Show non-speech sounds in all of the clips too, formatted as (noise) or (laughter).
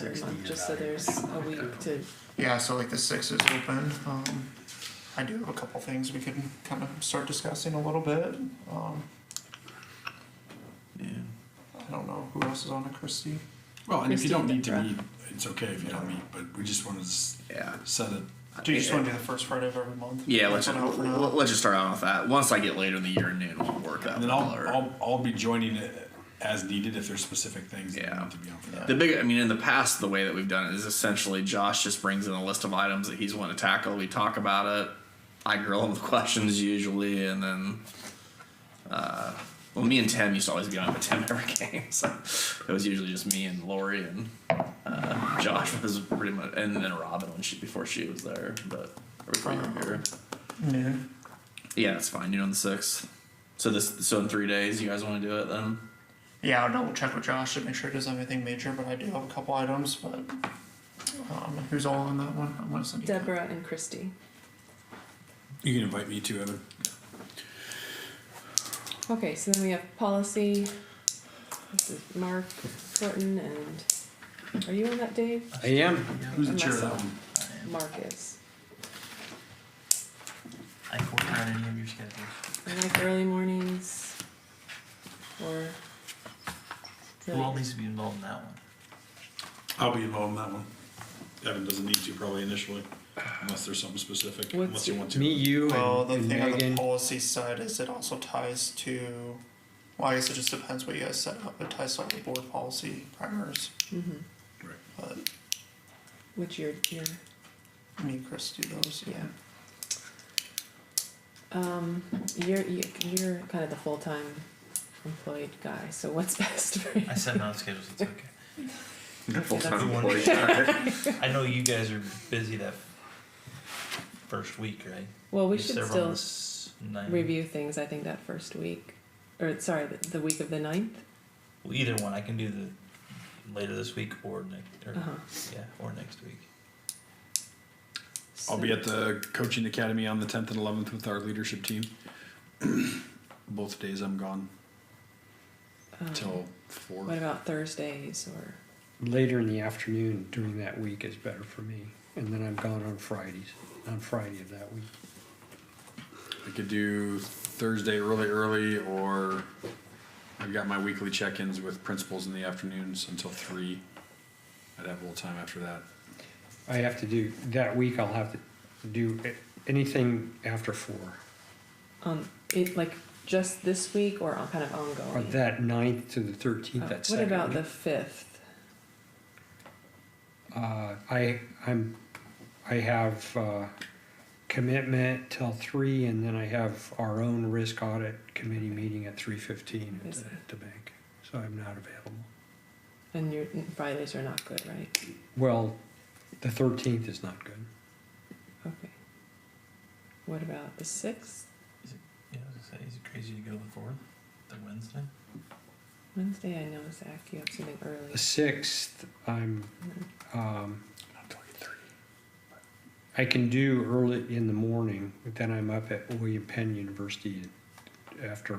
Sixty is just so out here. there's a week to, Yeah, so like the six is open. Um, I do have a couple things we can kind of start discussing a little bit. Um, Yeah. I don't know who else is on it, Christie. Well, and if you don't need to Christine meet, it's okay if you don't meet, but we just wanted to s- Yeah. set it. Do you just want to do the first Friday of every month? Yeah, let's That's what I want for now. let's just start out with that. Once I get later in the year, noon will work out. And then I'll, better. I'll, I'll be joining it as needed if there's specific things that Yeah. need to be on for that. The big, I mean, in the past, the way that we've done it is essentially Josh just brings in a list of items that he's wanting to tackle. We talk about it. I grill him with (laughs) questions usually, and then, uh, well, me and Tim used to always be on with Tim every (laughs) game, so it was usually just me and Lori and uh, Josh was pretty much, and then Robin when she before she was there, but or before you were here. Noon. Yeah, it's fine. Noon on the sixth. So this, so in three days, you guys want to do it then? Yeah, I'll double check with Josh to make sure it doesn't have anything major, but I do have a couple items. But um, who's all on that one? I'm gonna send you. Deborah and Christy. You can invite me too, Evan. Okay, so then we have policy. This is Mark Horton and, are you on that, Dave? I am. Who's the chair of that Myself. one? Mark is. I can work around any of your schedules. I like early mornings or. Who all needs to be involved in that one? I'll be involved in that one. Evan doesn't need to probably initially, unless there's something specific, unless What's- you want to. Me, you, Well, and, the and thing on the Megan. policy side is it also ties to. Well, I guess it just depends what you guys set up. It ties to all the board policy primers. Mhm. Right. But Which you're, you're, me and Chris do those. yeah. Um, you're, you- you're kind of the full-time employed guy, so what's (laughs) best for you? I set my own schedules. (laughs) It's okay. Full-time That's- employee. (laughs) I know you guys are busy that first week, right? Well, we You should serve on still. the s- ninth. review things, I think, that first week. Or, sorry, the, the week of the 9th? Well, either one. I can do the later this week or next. Or, Uh-huh. Yeah, or next week. I'll be at the coaching academy on the tenth and eleventh with our leadership team. (clears throat) Both days I'm gone till four. What about Thursdays or. later in the afternoon during that week is better for me. And then I'm gone on Fridays, on Friday of that week. I could do Thursday really early, or I've got my weekly check-ins with principals in the afternoons until three. I'd have a little time after that. I have to do, that week I'll have to do a- anything after four. Um, it, like, just this week or on- kind of Or ongoing? that ninth to Hmm. the Oh, thirteenth, that what second. about the week. 5th? Uh, I, I'm, I have, uh, commitment till three and then I have our own risk audit committee meeting at three fifteen at the, at the bank. So I'm not available. And your Fridays are not good, right? Well, the thirteenth is not good. Okay. What about the 6th? Yeah, I was gonna say, is it crazy to go the fourth, the Wednesday? Wednesday, I know, Zach, you have something early. The sixth, I'm, um, I can do early in the morning, but then I'm up at William Penn University after,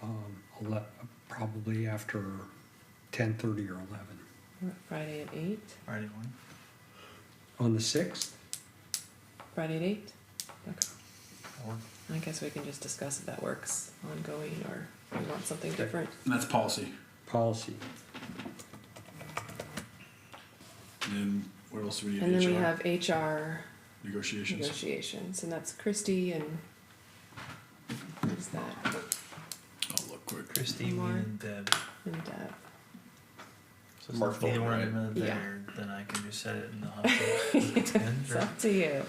um, ele- probably after ten thirty or eleven. Friday at 8? Friday morning. On the sixth, Friday at 8? Okay. Or I guess we can just discuss if that works ongoing or we want something Okay. different. And that's policy. policy. And then what else do we need? And then we HR? have HR negotiations. negotiations, and that's Christy and who's that? I'll look quick. Christy, me, Mark. and Deb. And uh, Deb. So since Mark neither Fulton, one right? of them are Yeah. there, then I can just set it in the (laughs) hospital. It's up to you.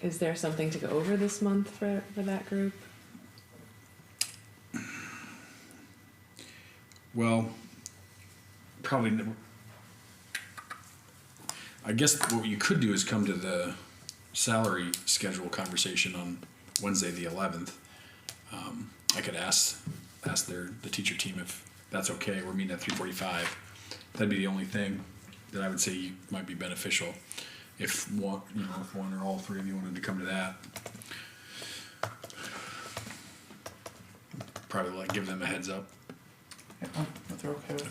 Is there something to go over this month for, for that group? Well, probably. Never. I guess what you could do is come to the salary schedule conversation on Wednesday the eleventh. Um, I could ask ask their the teacher team if that's okay. We're meeting at three forty five. That'd be the only thing that I would say might be beneficial if one you know if one or all three of you wanted to come to that. Probably like give them a heads up. Yeah, if they're okay with